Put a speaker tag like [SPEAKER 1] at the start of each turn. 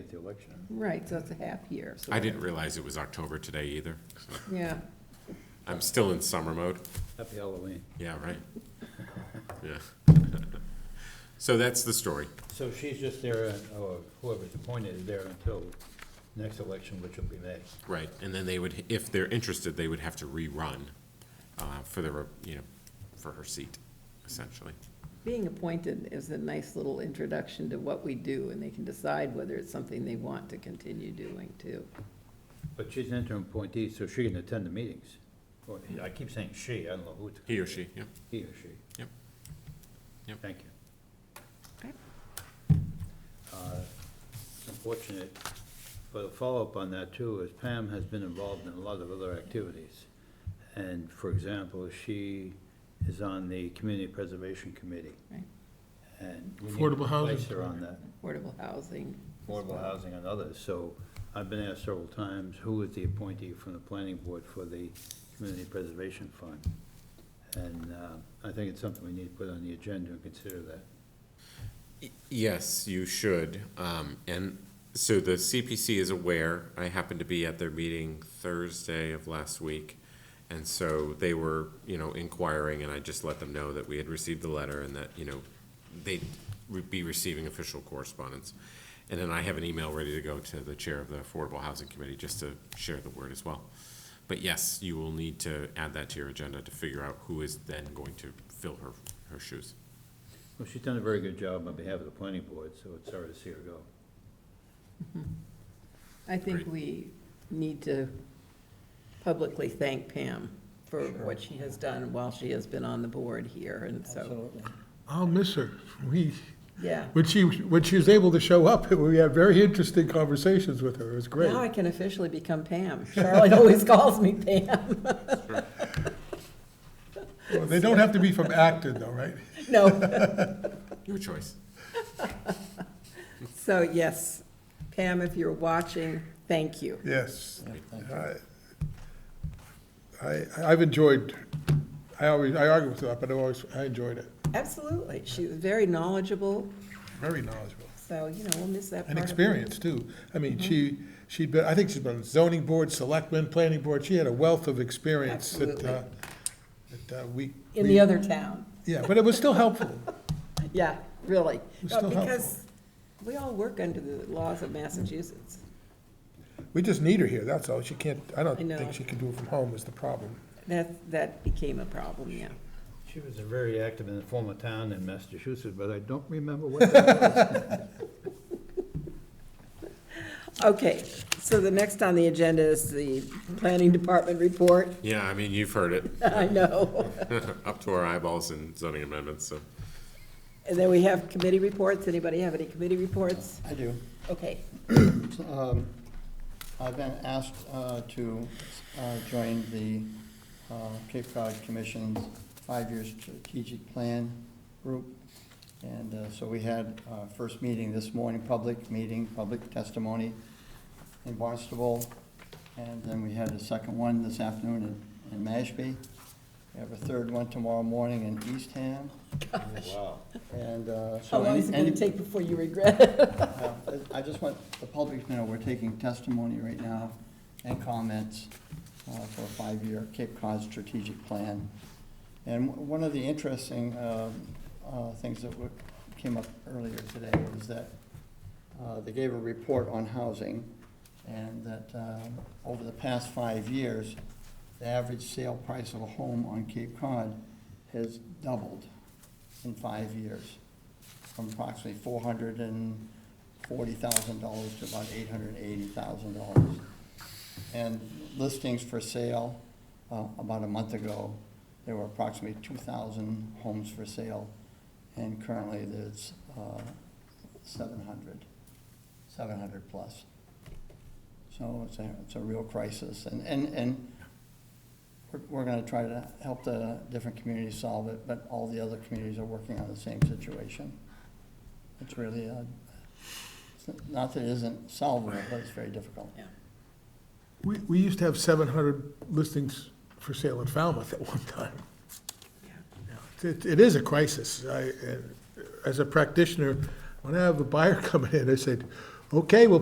[SPEAKER 1] the election.
[SPEAKER 2] Right, so it's a half year. so-
[SPEAKER 3] I didn't realize it was October today either. so
[SPEAKER 2] Yeah,
[SPEAKER 3] I'm still in summer mode.
[SPEAKER 1] Happy Halloween.
[SPEAKER 3] Yeah, right. Yeah. So that's the story.
[SPEAKER 1] So she's just there, and- or whoever's appointed is there until next election, which will be May.
[SPEAKER 3] Right, and then they would, if they're interested, they would have to rerun uh, for the, re- you know, for her seat, essentially.
[SPEAKER 2] being appointed is a nice little introduction to what we do, and they can decide whether it's something they want to continue doing too.
[SPEAKER 1] But she's an interim appointee, so she can attend the meetings. Or, I keep saying she, I don't know who it's.
[SPEAKER 3] He or she, yeah.
[SPEAKER 1] He or she.
[SPEAKER 3] Yep. Yep.
[SPEAKER 1] Thank you.
[SPEAKER 2] Okay.
[SPEAKER 1] Uh, It's unfortunate, but a follow-up on that too is Pam has been involved in a lot of other activities. And for example, she is on the Community Preservation Committee.
[SPEAKER 2] Right.
[SPEAKER 1] And we need
[SPEAKER 4] Affordable
[SPEAKER 1] to
[SPEAKER 4] housing
[SPEAKER 1] place her on that,
[SPEAKER 2] Affordable housing.
[SPEAKER 1] affordable housing and others. So I've been asked several times, who is the appointee from the planning board for the Community Preservation Fund? And uh, I think it's something we need to put on the agenda and consider that.
[SPEAKER 3] Y- Yes, you should. Um, And so the CPC is aware. I happened to be at their meeting Thursday of last week. And so they were, you know, inquiring, and I just let them know that we had received the letter and that, you know, they'd re- be receiving official correspondence. And then I have an email ready to go to the chair of the Affordable Housing Committee just to share the word as well. But yes, you will need to add that to your agenda to figure out who is then going to fill her, her shoes.
[SPEAKER 1] Well, she's done a very good job on behalf of the planning board, so it's sorry to see her go.
[SPEAKER 2] I think
[SPEAKER 3] Great.
[SPEAKER 2] we need to publicly thank Pam for what she has done while she has been on the board here, and so,
[SPEAKER 4] I'll miss her. We,
[SPEAKER 2] yeah.
[SPEAKER 4] when she, when she was able to show up, we had very interesting conversations with her. It was
[SPEAKER 2] Now I
[SPEAKER 4] great.
[SPEAKER 2] can officially become Pam. Charlotte always calls me Pam.
[SPEAKER 4] Well, They don't have to be from Acton though, right?
[SPEAKER 2] No,
[SPEAKER 3] Your choice.
[SPEAKER 2] so yes, Pam, if you're watching, thank you.
[SPEAKER 4] Yes. I, I- I've enjoyed, I always, I argue with her, but I always, I enjoyed it.
[SPEAKER 2] Absolutely. She was very knowledgeable,
[SPEAKER 4] Very knowledgeable.
[SPEAKER 2] so, you know, we'll miss that part.
[SPEAKER 4] And
[SPEAKER 2] of-
[SPEAKER 4] experience too. I mean,
[SPEAKER 2] Mm-hmm.
[SPEAKER 4] she, she'd been, I think she's been on zoning board, selectmen, planning board. She had a wealth of experience that, uh, that uh, we.
[SPEAKER 2] In
[SPEAKER 4] we-
[SPEAKER 2] the other town.
[SPEAKER 4] Yeah, but it was still helpful.
[SPEAKER 2] Yeah, really.
[SPEAKER 4] was
[SPEAKER 2] Uh,
[SPEAKER 4] still
[SPEAKER 2] Because we all work under the laws of Massachusetts.
[SPEAKER 4] We just need her here, that's all. She can't, I don't
[SPEAKER 2] I know.
[SPEAKER 4] think she can do it from home is the problem.
[SPEAKER 2] That, that became a problem, yeah.
[SPEAKER 1] She was a very active in the former town in Massachusetts, but I don't remember what that was.
[SPEAKER 2] Okay, so the next on the agenda is the planning department report.
[SPEAKER 3] Yeah, I mean, you've heard it,
[SPEAKER 2] I know.
[SPEAKER 3] up to our eyeballs in zoning amendments, so.
[SPEAKER 2] And then we have committee reports. Anybody have any committee reports?
[SPEAKER 5] I do.
[SPEAKER 2] Okay.
[SPEAKER 5] Um, I've been asked uh, to uh, join the uh, Cape Cod Commission's five-year strategic plan group. And uh, so we had our first meeting this morning, public meeting, public testimony in Barnstable. And then we had a second one this afternoon in- in Mashpee. We have a third one tomorrow morning in Eastham.
[SPEAKER 1] Wow.
[SPEAKER 5] And uh, so.
[SPEAKER 2] How long is it
[SPEAKER 5] any-
[SPEAKER 2] gonna take before you regret it?
[SPEAKER 5] Uh, I just want the public to know, we're taking testimony right now and comments uh, for a five-year Cape Cod strategic plan. And w- one of the interesting um, uh, things that wa- came up earlier today was that uh, they gave a report on housing, and that um, over the past five years, the average sale price of a home on Cape Cod has doubled in five years, from approximately four hundred and forty thousand dollars to about eight hundred and eighty thousand dollars. And listings for sale, uh, about a month ago, there were approximately two thousand homes for sale, and currently there's, uh, seven hundred, seven hundred plus. So it's a, it's a real crisis, and, and, and we're, we're gonna try to help the different communities solve it, but all the other communities are working on the same situation. It's really, uh, it's not that it isn't solvable, but it's very difficult.
[SPEAKER 4] We, we used to have seven hundred listings for sale in Falmouth at one time. It, it is a crisis. uh, I, and as a practitioner, when I have a buyer coming in, I said, okay, we'll